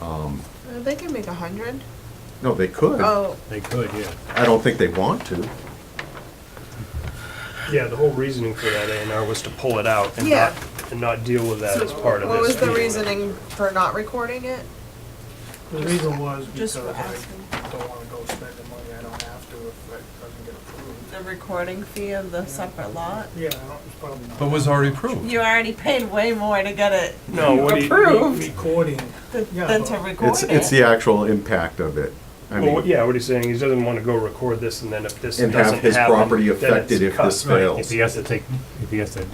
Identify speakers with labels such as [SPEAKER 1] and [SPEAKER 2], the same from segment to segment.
[SPEAKER 1] Um,
[SPEAKER 2] Uh, They can make a hundred.
[SPEAKER 1] No, they could.
[SPEAKER 2] Oh,
[SPEAKER 3] They could, yeah.
[SPEAKER 1] I don't think they want to.
[SPEAKER 3] Yeah, the whole reasoning for that A and R was to pull it out and
[SPEAKER 2] Yeah.
[SPEAKER 3] not, and not deal with that
[SPEAKER 2] so
[SPEAKER 3] as part of this.
[SPEAKER 2] what was the
[SPEAKER 3] meeting.
[SPEAKER 2] reasoning for not recording it?
[SPEAKER 4] The reason was because
[SPEAKER 2] Just for
[SPEAKER 4] I don't wanna go spend the money I don't have to if it doesn't get approved.
[SPEAKER 5] The recording fee of the separate lot?
[SPEAKER 4] Yeah, I don't, it's probably not.
[SPEAKER 6] But was already approved.
[SPEAKER 5] You already paid way more to get it
[SPEAKER 3] No, what do you?
[SPEAKER 5] approved
[SPEAKER 4] Recording,
[SPEAKER 5] th-
[SPEAKER 4] yeah,
[SPEAKER 5] than
[SPEAKER 4] but-
[SPEAKER 5] to
[SPEAKER 4] It's-
[SPEAKER 5] record
[SPEAKER 1] It's,
[SPEAKER 5] it.
[SPEAKER 1] it's the actual impact of it. I
[SPEAKER 3] Well,
[SPEAKER 1] mean,
[SPEAKER 3] yeah, what he's saying, he doesn't wanna go record this and then if this
[SPEAKER 1] And
[SPEAKER 3] doesn't
[SPEAKER 1] have
[SPEAKER 3] happen,
[SPEAKER 1] his property
[SPEAKER 3] then it's
[SPEAKER 1] affected if
[SPEAKER 3] cut.
[SPEAKER 1] this
[SPEAKER 3] Right.
[SPEAKER 1] fails.
[SPEAKER 7] If he has to take, if he has to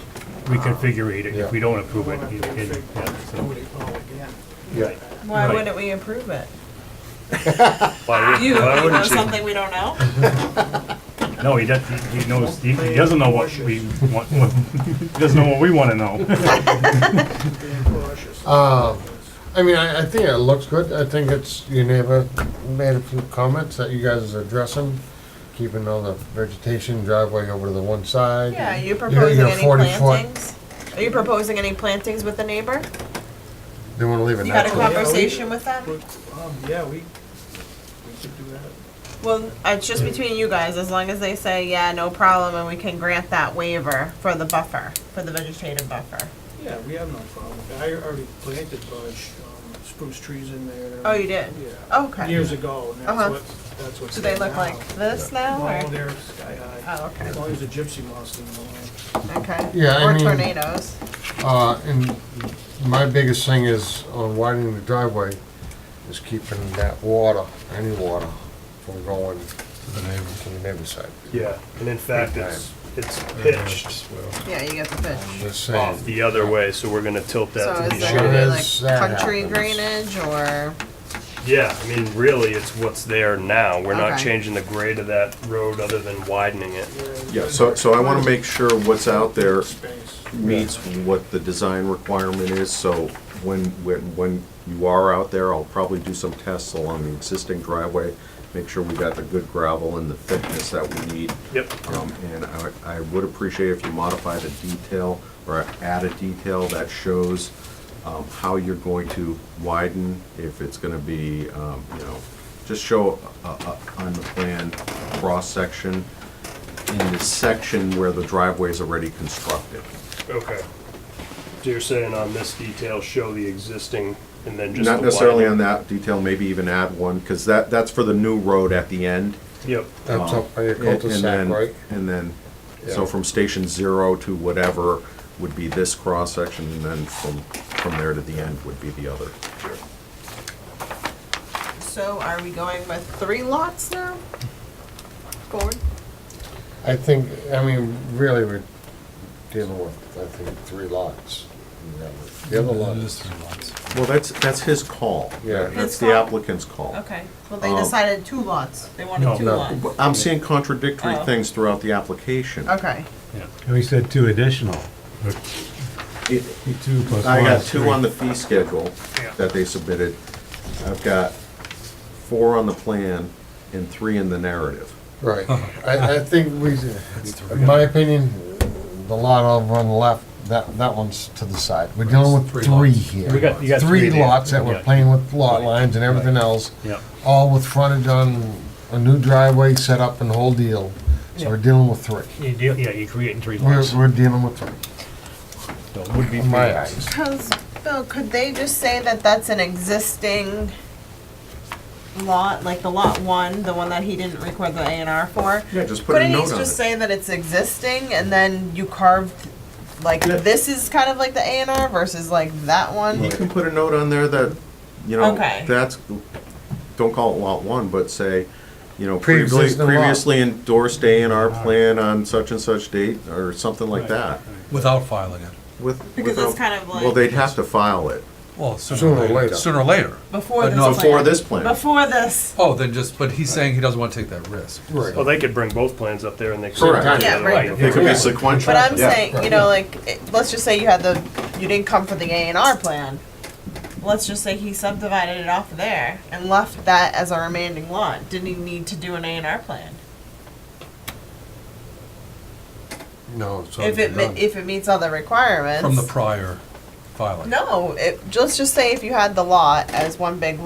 [SPEAKER 7] reconfigure it, if we don't approve it, he- he- yeah,
[SPEAKER 4] do
[SPEAKER 7] so-
[SPEAKER 4] it all oh, again.
[SPEAKER 7] Right.
[SPEAKER 2] Ah,
[SPEAKER 5] Why
[SPEAKER 7] Right.
[SPEAKER 5] wouldn't we approve it?
[SPEAKER 3] Why would-
[SPEAKER 5] You, you
[SPEAKER 3] why
[SPEAKER 5] know
[SPEAKER 3] wouldn't you?
[SPEAKER 5] something we don't know?
[SPEAKER 7] No, he doesn't, he knows, he he doesn't know what we want, what- he doesn't know what we wanna know.
[SPEAKER 4] Being cautious.
[SPEAKER 8] Uh, I mean, I, I think it looks good. I think it's, your neighbor made a few comments that you guys are addressing, keeping all the vegetation driveway over to the one side.
[SPEAKER 2] Yeah, are you
[SPEAKER 8] You're-
[SPEAKER 2] proposing
[SPEAKER 8] you're
[SPEAKER 2] any
[SPEAKER 8] 40 foot.
[SPEAKER 2] plantings? Are you proposing any plantings with the neighbor?
[SPEAKER 8] They wanna leave it
[SPEAKER 2] You had a
[SPEAKER 8] natural.
[SPEAKER 4] Yeah, we-
[SPEAKER 2] conversation with them?
[SPEAKER 4] But, um, yeah, we, we could do that.
[SPEAKER 2] Well, it's just between you guys, as long as they say, yeah, no problem, and we can grant that waiver for the buffer, for the vegetative buffer.
[SPEAKER 4] Yeah, we have no problem. I already planted bush, um, spruce trees in there.
[SPEAKER 2] Oh, you did?
[SPEAKER 4] Yeah.
[SPEAKER 2] Okay.
[SPEAKER 4] Years ago, and
[SPEAKER 2] Uh-huh.
[SPEAKER 4] that's what, that's what's.
[SPEAKER 2] Do they look
[SPEAKER 4] there now.
[SPEAKER 2] like this now,
[SPEAKER 4] No,
[SPEAKER 2] or?
[SPEAKER 4] they're sky high.
[SPEAKER 2] Oh, okay,
[SPEAKER 4] As long as the gypsy moths didn't go in.
[SPEAKER 2] okay.
[SPEAKER 8] Yeah, I
[SPEAKER 2] Or
[SPEAKER 8] mean-
[SPEAKER 2] tornadoes.
[SPEAKER 8] Uh, and my biggest thing is on widening the driveway, is keeping that water, any water, from going to the neighbor's side.
[SPEAKER 3] Yeah, and in fact, it's, it's pitched
[SPEAKER 2] Yeah, you get the
[SPEAKER 8] I'm
[SPEAKER 2] pitch.
[SPEAKER 8] Just
[SPEAKER 3] off
[SPEAKER 8] saying.
[SPEAKER 3] the other way, so we're gonna tilt
[SPEAKER 2] So
[SPEAKER 3] that to
[SPEAKER 2] is
[SPEAKER 3] be
[SPEAKER 2] there
[SPEAKER 8] sure
[SPEAKER 2] gonna
[SPEAKER 3] sure.
[SPEAKER 2] be
[SPEAKER 8] is
[SPEAKER 2] like
[SPEAKER 8] that
[SPEAKER 2] country
[SPEAKER 8] happens.
[SPEAKER 2] drainage, or?
[SPEAKER 3] Yeah, I mean, really, it's what's there now. We're not
[SPEAKER 2] Okay.
[SPEAKER 3] changing the grade of that road other than widening it.
[SPEAKER 1] Yeah, so, so I want to make sure what's out there
[SPEAKER 4] Space.
[SPEAKER 1] meets what the design requirement is, so when, when, when you are out there, I'll probably do some tests along the existing driveway, make sure we got the good gravel and the thickness that we need.
[SPEAKER 3] Yep.
[SPEAKER 1] Um, and I, would- I would appreciate if you modify the detail or add a detail that shows, um, how you're going to widen, if it's gonna be, um, you know, just show, uh, uh, on the plan, cross-section in the section where the driveway is already constructed.
[SPEAKER 3] Okay. So you're saying on this detail, show the existing and then just the
[SPEAKER 1] Not necessarily on
[SPEAKER 3] widening?
[SPEAKER 1] that detail, maybe even add one, because that, that's for the new road at the end.
[SPEAKER 3] Yep.
[SPEAKER 8] That's
[SPEAKER 1] Um,
[SPEAKER 8] up by your
[SPEAKER 1] and- and
[SPEAKER 8] cul-de-sac,
[SPEAKER 1] then-
[SPEAKER 8] right?
[SPEAKER 1] And then, so
[SPEAKER 8] Yeah.
[SPEAKER 1] from station zero to whatever would be this cross-section, and then from, from there to the end would be the other.
[SPEAKER 2] So are we going with three lots now? Forward?
[SPEAKER 8] I think, I mean, really, we're dealing with, I think, three lots. The other lot
[SPEAKER 6] It is
[SPEAKER 8] is
[SPEAKER 6] three lots.
[SPEAKER 1] Well, that's, that's his call.
[SPEAKER 8] Yeah.
[SPEAKER 1] That's
[SPEAKER 2] His
[SPEAKER 1] the
[SPEAKER 2] call?
[SPEAKER 1] applicant's call.
[SPEAKER 2] Okay, well, they
[SPEAKER 1] Um,
[SPEAKER 2] decided two lots, they
[SPEAKER 7] No.
[SPEAKER 2] wanted two
[SPEAKER 8] No.
[SPEAKER 2] lots.
[SPEAKER 1] But I'm seeing contradictory
[SPEAKER 2] Oh.
[SPEAKER 1] things throughout the application.
[SPEAKER 2] Okay,
[SPEAKER 7] yeah.
[SPEAKER 6] And we said two additional,
[SPEAKER 1] It-
[SPEAKER 6] two plus one.
[SPEAKER 1] I got
[SPEAKER 6] is
[SPEAKER 1] two
[SPEAKER 6] three.
[SPEAKER 1] on the fee schedule that they submitted. I've got four on the plan and three in the narrative.
[SPEAKER 8] Right. I, I think we, in my opinion, the lot over on the left, that, that one's to the side. We're dealing with three here.
[SPEAKER 7] We got- you got three there.
[SPEAKER 8] lots that we're
[SPEAKER 7] Yeah.
[SPEAKER 8] playing with lot lines and everything else,
[SPEAKER 7] Yep.
[SPEAKER 8] all with frontage on a new driveway set up and whole deal. So we're dealing with three.
[SPEAKER 7] You deal, yeah, you're creating three lots.
[SPEAKER 8] We're, we're dealing with three,
[SPEAKER 7] So it Would be
[SPEAKER 8] in
[SPEAKER 7] three
[SPEAKER 8] my
[SPEAKER 7] lots.
[SPEAKER 8] eyes.
[SPEAKER 2] because, Bill, could they just say that that's an existing lot, like the lot one, the one that he didn't record the A and R for?
[SPEAKER 1] Yeah, just put a
[SPEAKER 2] Couldn't he
[SPEAKER 1] note on
[SPEAKER 2] just
[SPEAKER 1] it.
[SPEAKER 2] say that it's existing and then you carved, like,
[SPEAKER 1] Yeah.
[SPEAKER 2] this is kind of like the A and R versus like that
[SPEAKER 1] You
[SPEAKER 2] one?
[SPEAKER 1] can put a note on there that, you know,
[SPEAKER 2] Okay.
[SPEAKER 1] that's, don't call it lot one, but say, you know, previously,
[SPEAKER 8] Pre-existing lot.
[SPEAKER 1] previously endorsed A and R plan on such and such date, or something like
[SPEAKER 7] Right,
[SPEAKER 1] that.
[SPEAKER 6] Without filing it.
[SPEAKER 1] With,
[SPEAKER 2] Because it's
[SPEAKER 1] without-
[SPEAKER 2] kind of
[SPEAKER 1] Well,
[SPEAKER 2] like,
[SPEAKER 1] they'd have to file it
[SPEAKER 6] Well, sooner
[SPEAKER 8] Sooner
[SPEAKER 6] or
[SPEAKER 8] or
[SPEAKER 6] later.
[SPEAKER 8] later.
[SPEAKER 6] Sooner or later.
[SPEAKER 2] before
[SPEAKER 6] but
[SPEAKER 2] this
[SPEAKER 6] no,
[SPEAKER 2] plan.
[SPEAKER 1] before this plan.
[SPEAKER 2] Before this,
[SPEAKER 6] Oh, then just, but he's saying he doesn't want to take that risk.
[SPEAKER 3] Well,
[SPEAKER 8] Right.
[SPEAKER 3] Oh, they could bring both plans up there and they could.
[SPEAKER 1] Correct.
[SPEAKER 2] Yeah, right.
[SPEAKER 1] It could
[SPEAKER 8] Yeah.
[SPEAKER 1] be sequential.
[SPEAKER 2] but I'm
[SPEAKER 1] Yeah.
[SPEAKER 2] saying, you know, like, it- let's just say you had the, you didn't come for the A and R plan. Let's just say he subdivided it off of there and left that as a remaining lot, didn't he need to do an A and R plan?
[SPEAKER 8] No, it's
[SPEAKER 2] If
[SPEAKER 8] already
[SPEAKER 2] it,
[SPEAKER 8] done.
[SPEAKER 2] mi- if it meets all the requirements.
[SPEAKER 6] From the prior, filing.
[SPEAKER 2] No, it, let's just say if you had the lot as one big lot.